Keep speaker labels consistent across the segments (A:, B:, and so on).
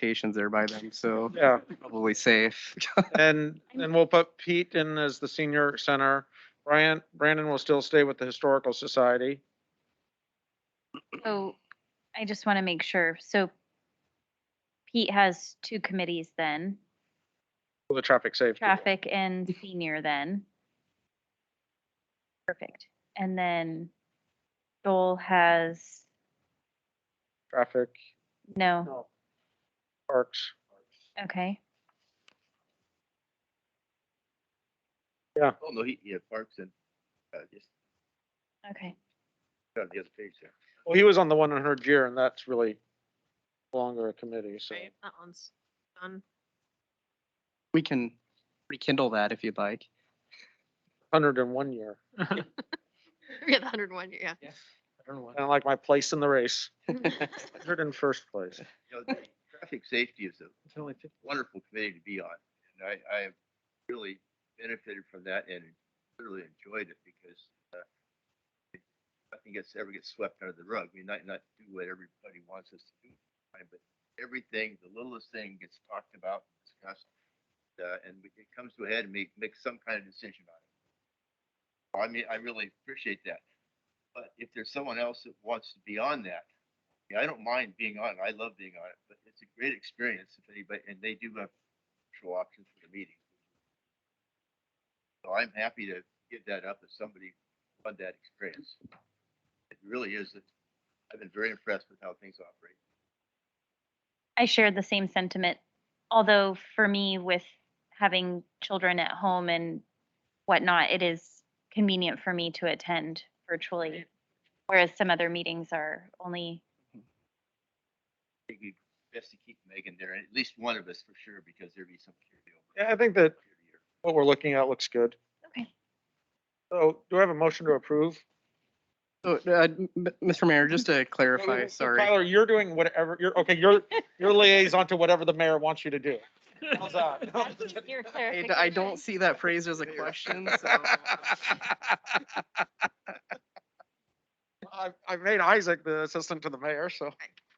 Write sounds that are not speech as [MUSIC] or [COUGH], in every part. A: expectations there by them, so
B: Yeah, [LAUGHS]
A: probably safe. [LAUGHS]
B: and, and we'll put Pete in as the senior center. Brian, Brandon will still stay with the Historical Society.
C: So I just want to make sure. So Pete has two committees then,
B: for The traffic safety.
C: traffic and senior then. Perfect. And then Joel has,
B: Traffic,
C: no,
B: parks.
C: okay.
D: Oh, no, he, he had parks and, uh, just,
C: Okay,
D: uh, the other page there.
B: Well, he was on the one hundred year and that's really longer a committee, so.
E: Right, that one's done. [LAUGHS]
A: We can rekindle that if you'd like.
B: Hundred and one year.
E: Yeah, the hundred and one, yeah.
B: Kind of like my place in the race. [LAUGHS] Hundred and first place.
D: You know, the Traffic safety is a wonderful committee to be on, and I, I have really benefited from that and really enjoyed it because, uh, nothing gets, ever gets swept under the rug. We might not do what everybody wants us to do, right, but everything, the littlest thing gets talked about, discussed, uh, and we- it comes to a head and we make some kind of decision on it. I mean, I really appreciate that, but if there's someone else that wants to be on that, yeah, I don't mind being on it. I love being on it, but it's a great experience if anybody, and they do have virtual options for the meeting. So I'm happy to give that up if somebody had that experience. It really is, I've been very impressed with how things operate.
C: I shared the same sentiment, although for me, with having children at home and whatnot, it is convenient for me to attend virtually, whereas some other meetings are only,
D: I think we best to keep Megan there, at least one of us for sure, because there'd be some carryover.
B: Yeah, I think that
D: year to year.
B: what we're looking at looks good.
C: okay.
B: So do I have a motion to approve?
A: So, uh, m- m- Mr. Mayor, just to
B: Wait, wait,
A: clarify,
B: wait,
A: sorry.
B: Tyler, you're doing whatever, you're, okay, you're, you're liaison to whatever the mayor wants you to do. How's
D: [LAUGHS]
B: that?
A: Oh, [LAUGHS] I d- I don't see that phrased as a
B: [LAUGHS]
A: question, so.
B: I, I made Isaac the assistant to the mayor, so.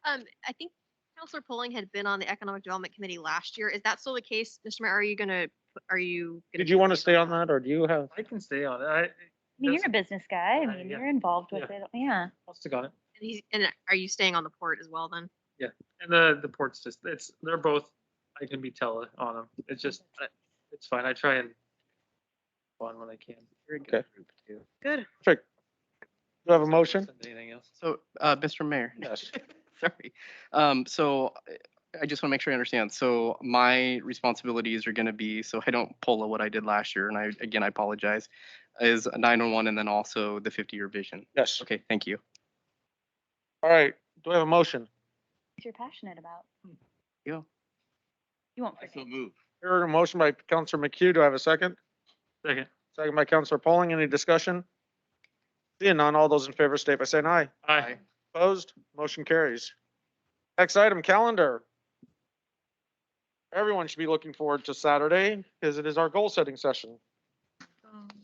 E: Um, I think Counselor Polling had been on the Economic Development Committee last year. Is that still the case? Mr. Mayor, are you gonna, put- are you?
B: [LAUGHS]
E: gonna
B: Did you want to
E: continue
B: stay on that or do you have?
F: I can stay on it. I,
C: I mean,
F: Yes.
C: You're a business guy. I
F: Yeah,
C: mean,
F: yeah.
C: you're involved with
F: Yeah.
C: it. Yeah.
F: I'll stick on it.
E: And he's- And are you staying on the port as well then?
F: And the, the port's just, it's, they're both, I can be tele on them. It's just, I- it's fine. I try and on when I can.
B: Okay. Perfect. Do I have a motion?
F: Anything else?
A: So, uh, Mr. Mayor.
B: Yes.
A: [LAUGHS] Sorry. Um, so I- I just want to make sure I understand. So my responsibilities are going to be, so I don't pull what I did last year, and I, again, I apologize, is 911 and then also the 50-year vision.
B: Yes.
A: Okay, thank you.
B: All right. Do I have a motion?
C: If you're passionate about.
A: You.
C: You won't
D: I
C: forget.
D: still move.
B: Heard a motion by Counselor McHugh. Do I have a second?
F: Second.
B: Second by Counselor Polling. Any discussion? Seeing none, all those in favor state by saying aye.
F: Aye.
B: Opposed? Motion carries. Next item, calendar. Everyone should be looking forward to Saturday because it is our goal setting session.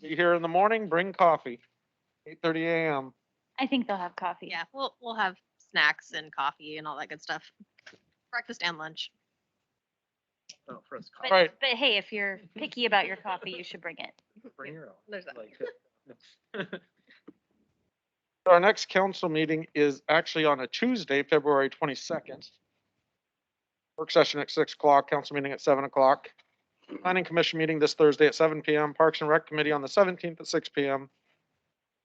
B: Be here in the morning, bring coffee, eight thirty AM.
C: I think they'll have coffee.
E: Yeah, we'll, we'll have snacks and coffee and all that good stuff. Breakfast and lunch.
F: Oh, for us,
C: But,
B: Right.
C: but hey, if you're picky about your coffee, you should bring it.
F: bring your own.
E: There's that.
F: Like,
B: Our next council meeting is actually on a Tuesday, February twenty-second. Work session at six o'clock, council meeting at seven o'clock. Planning Commission meeting this Thursday at seven PM, Parks and Rec Committee on the seventeenth at six PM.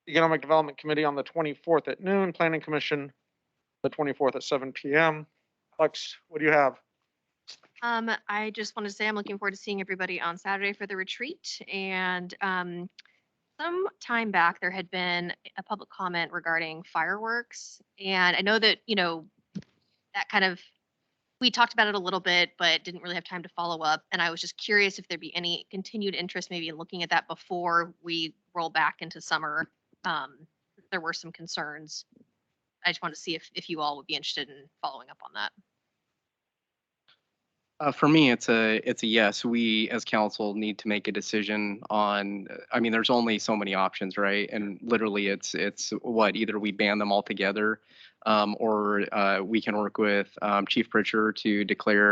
B: Economic Development Committee on the twenty-fourth at noon, Planning Commission the twenty-fourth at seven PM. Lex, what do you have?
E: Um, I just wanted to say I'm looking forward to seeing everybody on Saturday for the retreat and, um, some time back, there had been a public comment regarding fireworks. And I know that, you know, that kind of, we talked about it a little bit, but didn't really have time to follow up. And I was just curious if there'd be any continued interest maybe in looking at that before we roll back into summer. Um, there were some concerns. I just wanted to see if, if you all would be interested in following up on that.
A: Uh, for me, it's a, it's a yes. We as council need to make a decision on, uh, I mean, there's only so many options, right? And literally it's, it's what, either we ban them altogether Um, or uh, we can work with um, Chief Pritchard to declare